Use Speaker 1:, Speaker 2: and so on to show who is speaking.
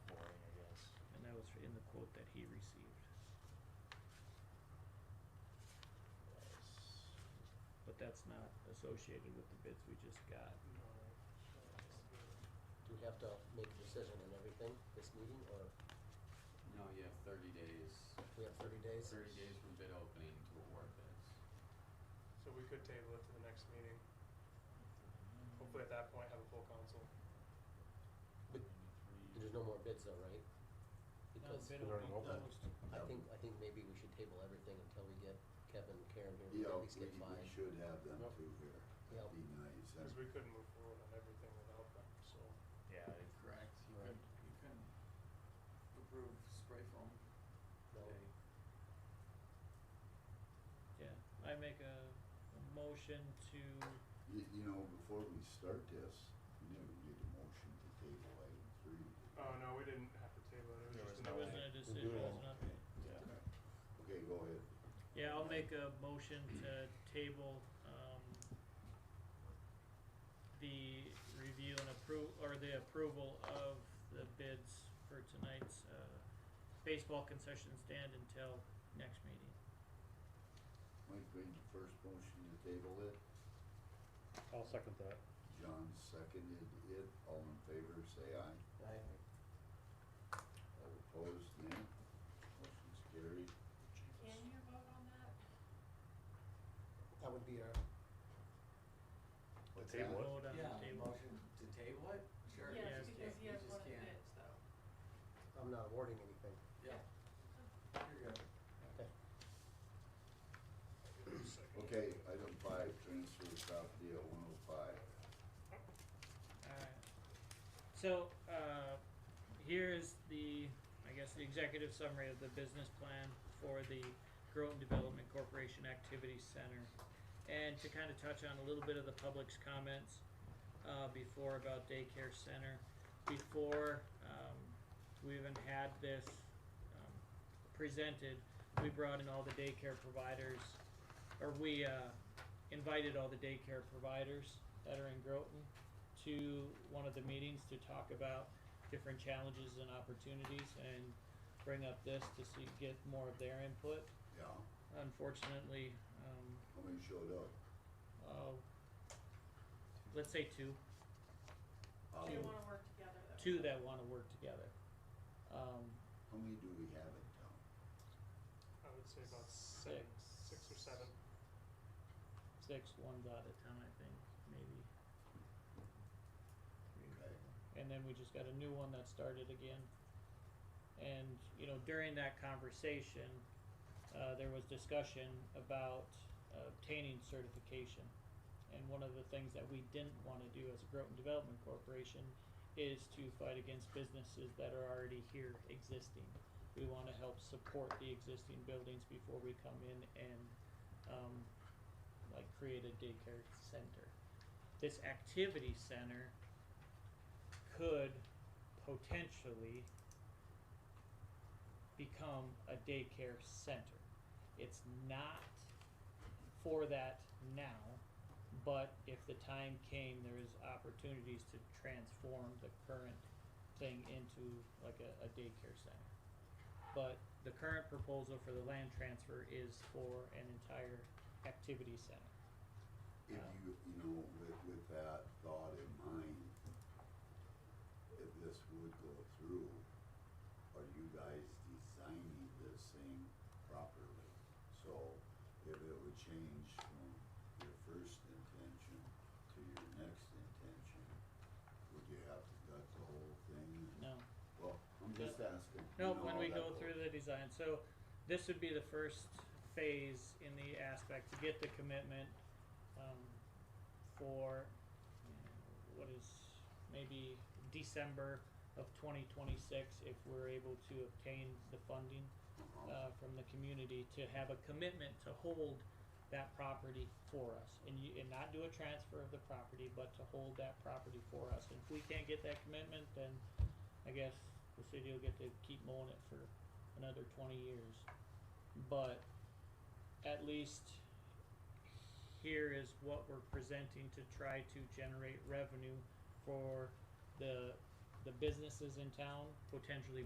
Speaker 1: in the quote that he received. But that's not associated with the bids we just got.
Speaker 2: Do we have to make a decision on everything this meeting, or
Speaker 3: No, you have thirty days,
Speaker 2: we have thirty days?
Speaker 3: thirty days from bid opening to award bids.
Speaker 4: So we could table it to the next meeting. Hopefully at that point have a full council.
Speaker 2: But there's no more bids though, right? Because
Speaker 5: They're already open.
Speaker 2: I think, I think maybe we should table everything until we get Kevin, Karen here, we at
Speaker 6: Yeah, we
Speaker 2: least get
Speaker 6: we
Speaker 2: five.
Speaker 6: should have them two here.
Speaker 2: Yeah.
Speaker 6: That'd be nice.
Speaker 4: Because we couldn't move forward on everything without them, so.
Speaker 1: Yeah,
Speaker 3: Correct. You
Speaker 2: Right.
Speaker 3: could, you could approve spray foam
Speaker 2: No.
Speaker 3: today.
Speaker 1: yeah. I make a motion to,
Speaker 6: You, you know, before we start this, we never did a motion to table item three. did we?
Speaker 4: Oh, no, we didn't have to table it. It was
Speaker 5: There was
Speaker 4: just an
Speaker 5: no-
Speaker 1: there wasn't
Speaker 4: update.
Speaker 1: a decision, it was an update.
Speaker 6: Yeah. Okay, go ahead.
Speaker 1: Yeah, I'll make a motion to table, um, the review and approve, or the approval of the bids for tonight's, uh, baseball concession stand until next meeting.
Speaker 6: Mike made the first motion to table it.
Speaker 5: I'll second that.
Speaker 6: John seconded it. All in favor, say aye.
Speaker 2: Aye.
Speaker 6: All opposed, nay. Motion's carried.
Speaker 7: Can you vote on that?
Speaker 2: That would be our,
Speaker 6: What's
Speaker 5: table
Speaker 6: that?
Speaker 5: it.
Speaker 1: Vote on the
Speaker 3: Yeah,
Speaker 1: table.
Speaker 3: motion to table it, sure. you
Speaker 1: Yes,
Speaker 3: just
Speaker 7: Yes, because
Speaker 3: can't-
Speaker 7: he
Speaker 3: you
Speaker 7: has
Speaker 3: just
Speaker 7: one of the
Speaker 3: can't-
Speaker 7: bids, though.
Speaker 2: I'm not awarding anything.
Speaker 3: Yeah, you're good.
Speaker 2: Okay.
Speaker 6: Okay, item five, transfer South Deal one oh five.
Speaker 1: Alright. So, uh, here is the, I guess, the executive summary of the business plan for the Groton Development Corporation Activity Center. And to kind of touch on a little bit of the public's comments, uh, before about daycare center. Before, um, we even had this, um, presented, we brought in all the daycare providers, or we, uh, invited all the daycare providers that are in Groton to one of the meetings to talk about different challenges and opportunities and bring up this to see, get more of their input.
Speaker 6: Yeah,
Speaker 1: Unfortunately, um,
Speaker 6: how many showed up?
Speaker 1: uh, let's say two,
Speaker 7: They
Speaker 6: Um,
Speaker 7: wanna work together, though.
Speaker 1: two that wanna work together. Um,
Speaker 6: How many do we have in town?
Speaker 4: I would say about seven,
Speaker 1: Six.
Speaker 4: six or seven.
Speaker 1: six, one's out of town, I think, maybe.
Speaker 6: Okay.
Speaker 1: and then we just got a new one that started again. And you know, during that conversation, uh, there was discussion about obtaining certification. And one of the things that we didn't want to do as a Groton Development Corporation is to fight against businesses that are already here existing. We want to help support the existing buildings before we come in and um, like create a daycare center. This activity center could potentially become a daycare center. It's not for that now, but if the time came, there is opportunities to transform the current thing into like a, a daycare center. But the current proposal for the land transfer is for an entire activity center.
Speaker 6: If
Speaker 1: Yeah.
Speaker 6: you, you know, with, with that thought in mind, if this would go through, are you guys designing this thing properly? So if it would change from your first intention to your next intention, would you have to gut the whole thing?
Speaker 1: No.
Speaker 6: Well, I'm just asking. you
Speaker 1: No,
Speaker 6: know,
Speaker 1: when we
Speaker 6: that
Speaker 1: go
Speaker 6: whole-
Speaker 1: through the design, so this would be the first phase in the aspect to get the commitment um, for you know, what is maybe December of 2026 if we're able to obtain the funding
Speaker 6: Uh-huh.
Speaker 1: uh, from the community to have a commitment to hold that property for us and you, and not do a transfer of the property, but to hold that property for us. And if we can't get that commitment, then I guess the city will get to keep mowing it for another twenty years. But at least here is what we're presenting to try to generate revenue for the, the businesses in town, potentially